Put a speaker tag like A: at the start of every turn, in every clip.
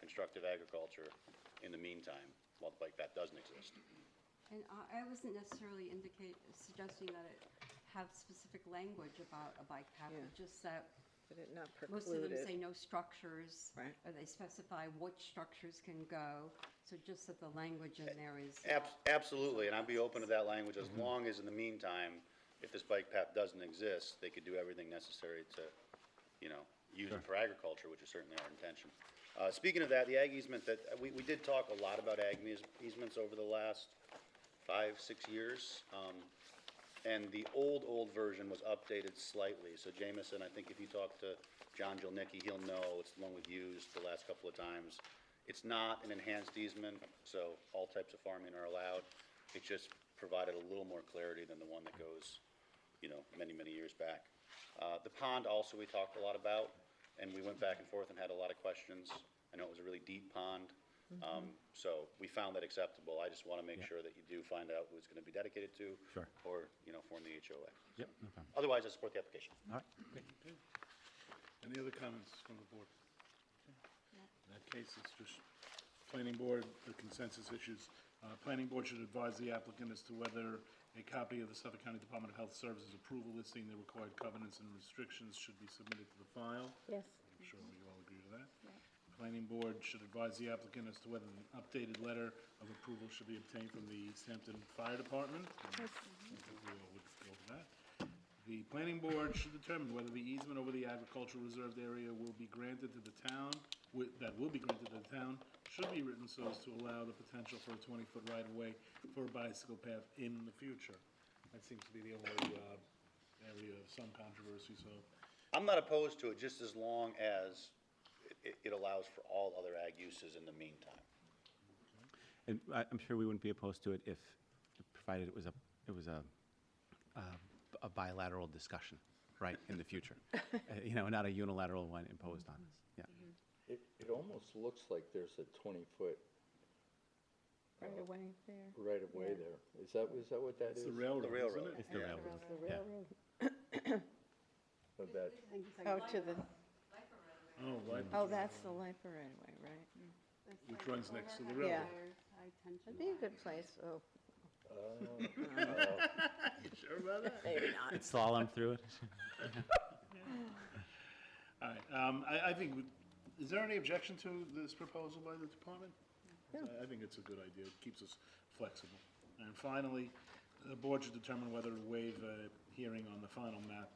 A: constructive agriculture in the meantime, well, like that doesn't exist.
B: And I, I wasn't necessarily indicate, suggesting that it have specific language about a bike path, but
C: Yeah.
B: just that
C: But it not
B: most of them
C: precluded.
B: say no structures.
C: Right.
B: Or they specify what structures can go, so just that the language in there is.
A: Abs- Absolutely, and I'd be open to that language as long as in the meantime, if this bike path doesn't exist, they could do everything necessary to, you know, use it for agriculture, which is certainly our intention. Uh, speaking of that, the ag easement that, we, we did talk a lot about ag eas- easements over the last five, six years. Um, and the old, old version was updated slightly. So Jamison, I think if you talk to John Jolnicki, he'll know, it's the one we've used the last couple of times. It's not an enhanced easement, so all types of farming are allowed. It just provided a little more clarity than the one that goes, you know, many, many years back. Uh, the pond also we talked a lot about, and we went back and forth and had a lot of questions. I know it was a really deep pond,
D: Mm-hmm.
A: um, so we found that acceptable. I just want to make sure that you do find out who it's going to be dedicated to.
D: Sure.
A: Or, you know, form the HOA.
D: Yep, no problem.
A: Otherwise, I support the application.
D: All right.
E: Any other comments from the board? In that case, it's just planning board, the consensus issues. Uh, planning board should advise the applicant as to whether a copy of the Suffolk County Department of Health Services approval listing the required covenants and restrictions should be submitted to the file.
C: Yes.
E: I'm sure we all agree to that. Planning board should advise the applicant as to whether an updated letter of approval should be obtained from the East Hampton Fire Department. Yes. We all would go for that. The planning board should determine whether the easement over the agricultural reserved area will be granted to the town, wi- that will be granted to the town, should be written so as to allow the potential for a twenty-foot right-of-way for a bicycle path in the future. That seems to be the only, uh, area of some controversy, so
A: I'm not opposed to it, just as long as it- it, it allows for all other ag uses in the meantime.
D: And I, I'm sure we wouldn't be opposed to it if, provided it was a, it was a, a- a bilateral discussion, right, in the future. Uh, You know, not a unilateral one imposed on us, yeah.
F: It, it almost looks like there's a twenty-foot
C: Right away there.
F: right-of-way there. Is that, is that what that
E: it's
F: is?
E: the railroad, isn't
A: railroad.
E: it?
D: It's the
A: Yeah.
D: railroad,
C: The
D: yeah.
C: railroad.
F: Of that,
C: Oh, to the,
E: Oh, right,
C: oh, that's the Lipa right away, right?
E: which runs next to the
C: Yeah.
E: railroad.
C: That'd be a good place, oh.
E: Sure about that?
C: Maybe not.
D: It's slalom through it.
E: All right, um, I, I think, we- is there any objection to this proposal by the department? I- I think it's a good idea, it keeps us flexible. And finally, the board should determine whether to waive a hearing on the final map.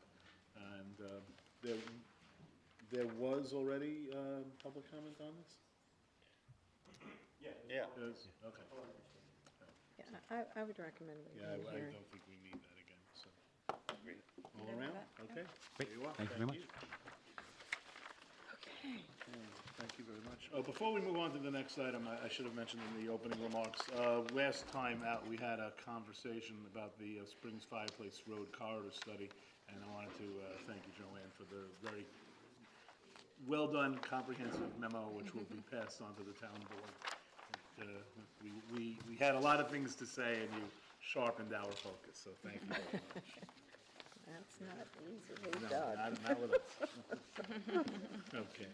E: And, uh, there, there was already, uh, public comment on this?
A: Yeah.
E: Yes, okay.
C: Yeah, I, I would recommend Oh, we
E: Yeah, I I
C: have a hearing.
E: don't think we need that again, so. All around, okay.
D: Great,
E: There you are.
D: thank you very much.
E: Thank you very much. Uh, Before we move on to the next item, I I should have mentioned in the opening remarks, uh, last time out, we had a conversation about the uh, Springs Fireplace Road Corridor Study, and I wanted to uh, thank you, Joanne, for the very well-done comprehensive memo, which will be passed on to the town board. And, uh, We we we had a lot of things to say, and you sharpened our focus, so thank you very much.
C: That's not easily
E: No,
C: done.
E: not, not with us. Okay.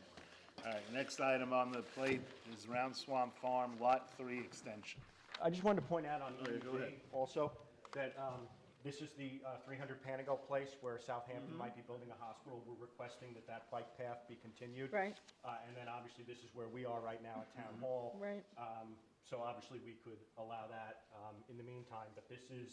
E: All right, next item on the plate is Round Swamp Farm Lot Three Extension.
G: I just wanted to point out on
E: Oh, yeah, go
G: EUV
E: ahead.
G: also, that um, this is the uh, 300 Panago Place where
E: Mm-hmm.
G: Southampton might be building a hospital. We're requesting that that bike path be continued.
C: Right.
G: Uh, And then obviously, this is where we are right now at
E: Mm-hmm.
G: Town Hall.
C: Right.
G: Um, So obviously, we could allow that um, in the meantime, but this is,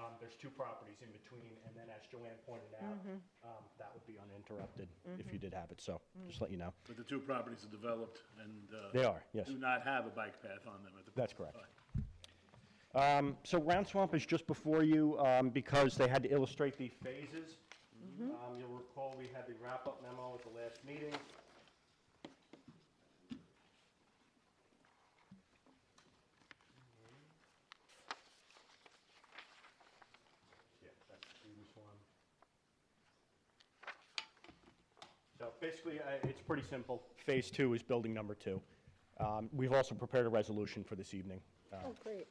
G: um, there's two properties in between. And then as Joanne pointed out,
C: Mm-hmm.
G: um, that would be uninterrupted if you did have it, so
C: Mm.
G: just let you know.
E: But the two properties are developed and, uh.
G: They are, yes.
E: Do not have a bike path on them at the.
G: That's correct.
E: All right.
G: Um, So Round Swamp is just before you um, because they had to illustrate the phases. Um, You'll recall, we had the wrap-up memo at the last meeting. Yeah, that's the previous one. So basically, uh, it's pretty simple. Phase two is building number two. Um, We've also prepared a resolution for this evening. uh,
C: Oh, great.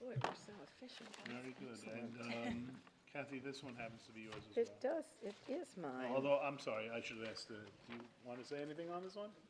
C: Boy, we're so efficient.
E: Very good. And, um, Kathy, this one happens to be yours as
C: It does, it is
E: well.
C: mine.
E: Although, I'm sorry, I should have asked, uh, do you want to say anything on this one?